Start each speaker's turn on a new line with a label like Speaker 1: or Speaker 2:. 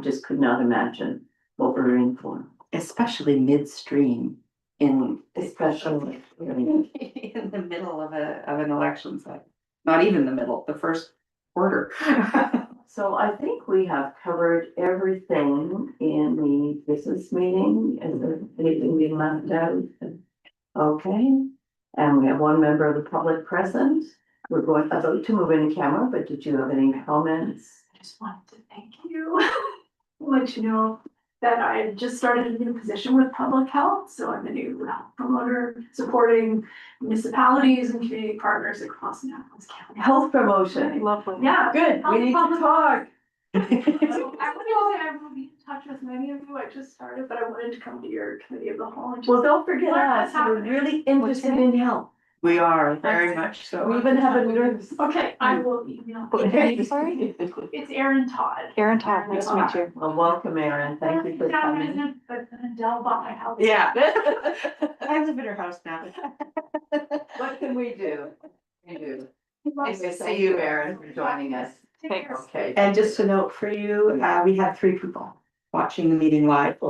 Speaker 1: just could not imagine what we're in for,
Speaker 2: especially midstream in.
Speaker 1: especially. you
Speaker 2: In the middle of a, of an election cycle, not even the middle, the first quarter.
Speaker 1: know. So I think we have covered everything in the business meeting, is there anything we left out? Okay, and we have one member of the public present, we're going about to move into camera, but did you have any comments?
Speaker 3: I just wanted to thank you. Let you know that I just started a new position with public health, so I'm a new health promoter supporting municipalities and community partners across Annapolis County.
Speaker 1: Health promotion,
Speaker 2: Lovely.
Speaker 3: Yeah.
Speaker 1: good, we need to talk.
Speaker 3: So I would say I will be in touch with many of you. I just started, but I wanted to come to your committee of the whole. and just-
Speaker 1: Well, don't forget
Speaker 3: What
Speaker 1: us,
Speaker 3: has
Speaker 1: we're
Speaker 3: happened?
Speaker 1: really interested
Speaker 3: Okay.
Speaker 1: in health,
Speaker 2: We are very much so.
Speaker 1: we even have a nurse.
Speaker 3: Okay, I will email.
Speaker 4: sorry?
Speaker 3: It's Erin Todd.
Speaker 4: Erin Todd, nice to meet you.
Speaker 1: Well, welcome, Erin, thank you for
Speaker 3: Yeah, I'm
Speaker 1: coming.
Speaker 3: in- But then Dell bought my house.
Speaker 2: Yeah. I live in her house now.
Speaker 1: What can we do? We do.
Speaker 3: Love
Speaker 1: Nice
Speaker 3: it.
Speaker 1: to see you, Erin, for joining us.
Speaker 3: Take care.
Speaker 1: Okay.
Speaker 2: And just a note for you, uh, we had three people watching the meeting live.